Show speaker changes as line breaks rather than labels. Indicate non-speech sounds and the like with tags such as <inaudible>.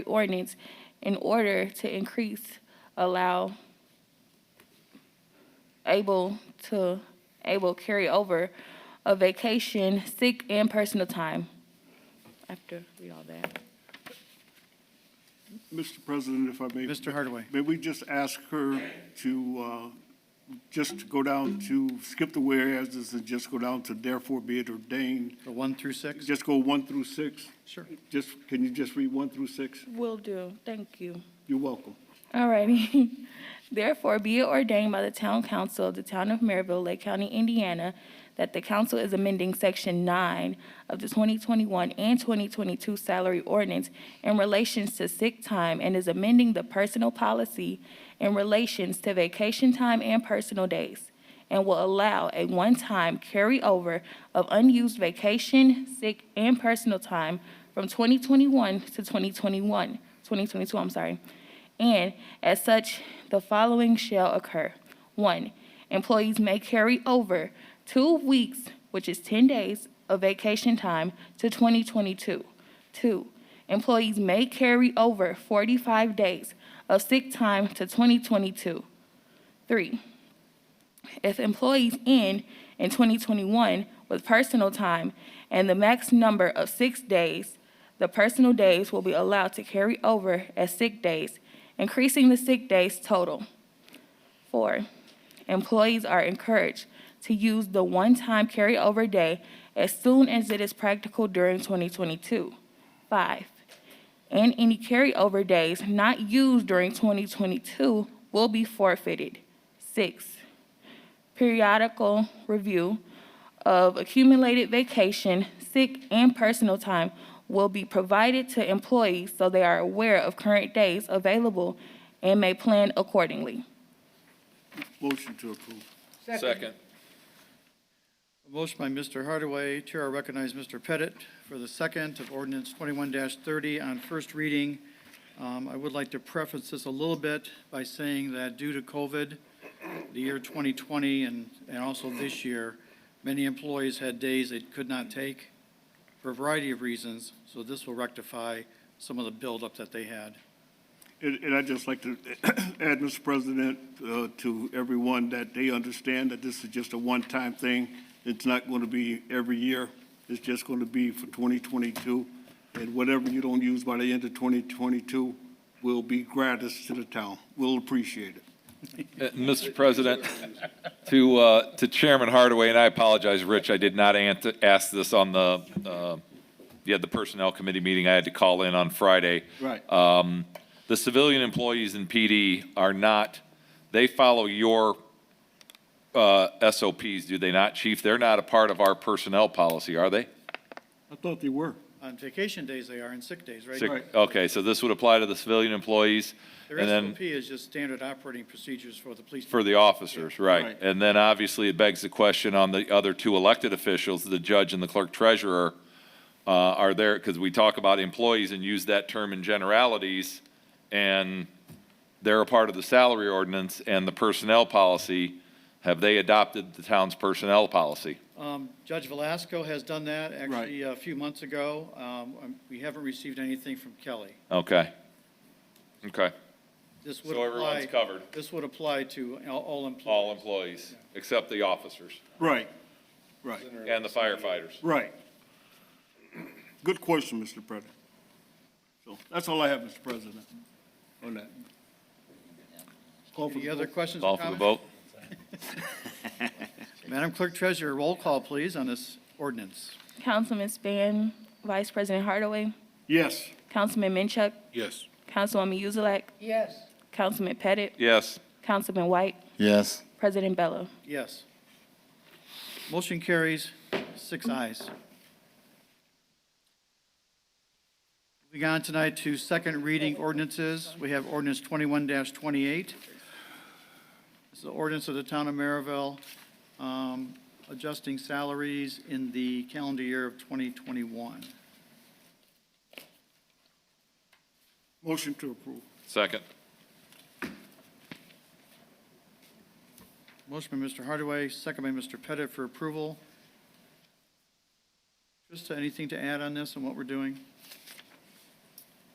ordinance in order to increase, allow able to, able carry over of vacation, sick, and personal time. After read all that.
Mr. President, if I may.
Mr. Hardaway.
May we just ask her to, uh, just go down to, skip the whereases and just go down to therefore be it ordained?
The one through six?
Just go one through six?
Sure.
Just, can you just read one through six?
Will do, thank you.
You're welcome.
Alrighty. <laughs> Therefore, be it ordained by the Town Council of the Town of Maryville, Lake County, Indiana, that the council is amending Section 9 of the 2021 and 2022 salary ordinance in relations to sick time and is amending the personal policy in relations to vacation time and personal days, and will allow a one-time carryover of unused vacation, sick, and personal time from 2021 to 2021, 2022, I'm sorry. And as such, the following shall occur. One, employees may carry over two weeks, which is 10 days, of vacation time to 2022. Two, employees may carry over 45 days of sick time to 2022. Three, if employees end in 2021 with personal time and the max number of six days, the personal days will be allowed to carry over as sick days, increasing the sick days total. Four, employees are encouraged to use the one-time carryover day as soon as it is practical during 2022. Five, and any carryover days not used during 2022 will be forfeited. Six, periodical review of accumulated vacation, sick, and personal time will be provided to employees so they are aware of current days available and may plan accordingly.
Motion to approve.
Second.
A motion by Mr. Hardaway. Chair, I recognize Mr. Pettit for the second of ordinance twenty-one thirty on first reading. Um, I would like to preface this a little bit by saying that due to COVID, the year twenty twenty and, and also this year, many employees had days they could not take for a variety of reasons, so this will rectify some of the buildup that they had.
And, and I'd just like to <coughs> add, Mr. President, uh, to everyone that they understand that this is just a one-time thing. It's not going to be every year. It's just going to be for 2022. And whatever you don't use by the end of 2022 will be gratis to the town. We'll appreciate it.
Uh, Mr. President, <laughs> to, uh, to Chairman Hardaway, and I apologize, Rich, I did not ant- ask this on the, uh, yeah, the Personnel Committee meeting. I had to call in on Friday.
Right.
Um, The civilian employees in PD are not, they follow your uh, SOPs, do they not, Chief? They're not a part of our personnel policy, are they?
I thought they were.
On vacation days they are, and sick days, right?
Sick- Okay, so this would apply to the civilian employees?
Their
and then-
SOP is just standard operating procedures for the police.
For the officers, right.
Right.
And then obviously it begs the question on the other two elected officials, the judge and the clerk treasurer, uh, are there, because we talk about employees and use that term in generalities, and they're a part of the salary ordinance and the personnel policy. Have they adopted the town's personnel policy?
Um, Judge Velasco has done that actually a few months ago. Um, um, We haven't received anything from Kelly.
Okay. Okay.
This would
So everyone's
apply,
covered,
this would apply to all- all employees.
all employees, except the officers
Right, right,
and the firefighters.
right. Good question, Mr. President. So that's all I have, Mr. President, on that. Call for
Any
the
other
vote.
questions or
Call for the
comments?
vote.
Madam Clerk Treasurer, roll call, please, on this ordinance.
Councilman Span, Vice President Hardaway,
Yes.
Councilman Minchuk,
Yes.
Councilwoman Yuzlak. Yes. Councilman Pettit,
Yes.
Councilman White,
Yes.
President Bello.
Yes. Motion carries, six ayes. Moving on tonight to second reading ordinances. We have ordinance twenty-one twenty-eight. This is the ordinance of the town of Maryville, um, adjusting salaries in the calendar year of twenty twenty-one.
Motion to approve.
Second.
Motion by Mr. Hardaway, second by Mr. Pettit for approval. Trista, anything to add on this and what we're doing?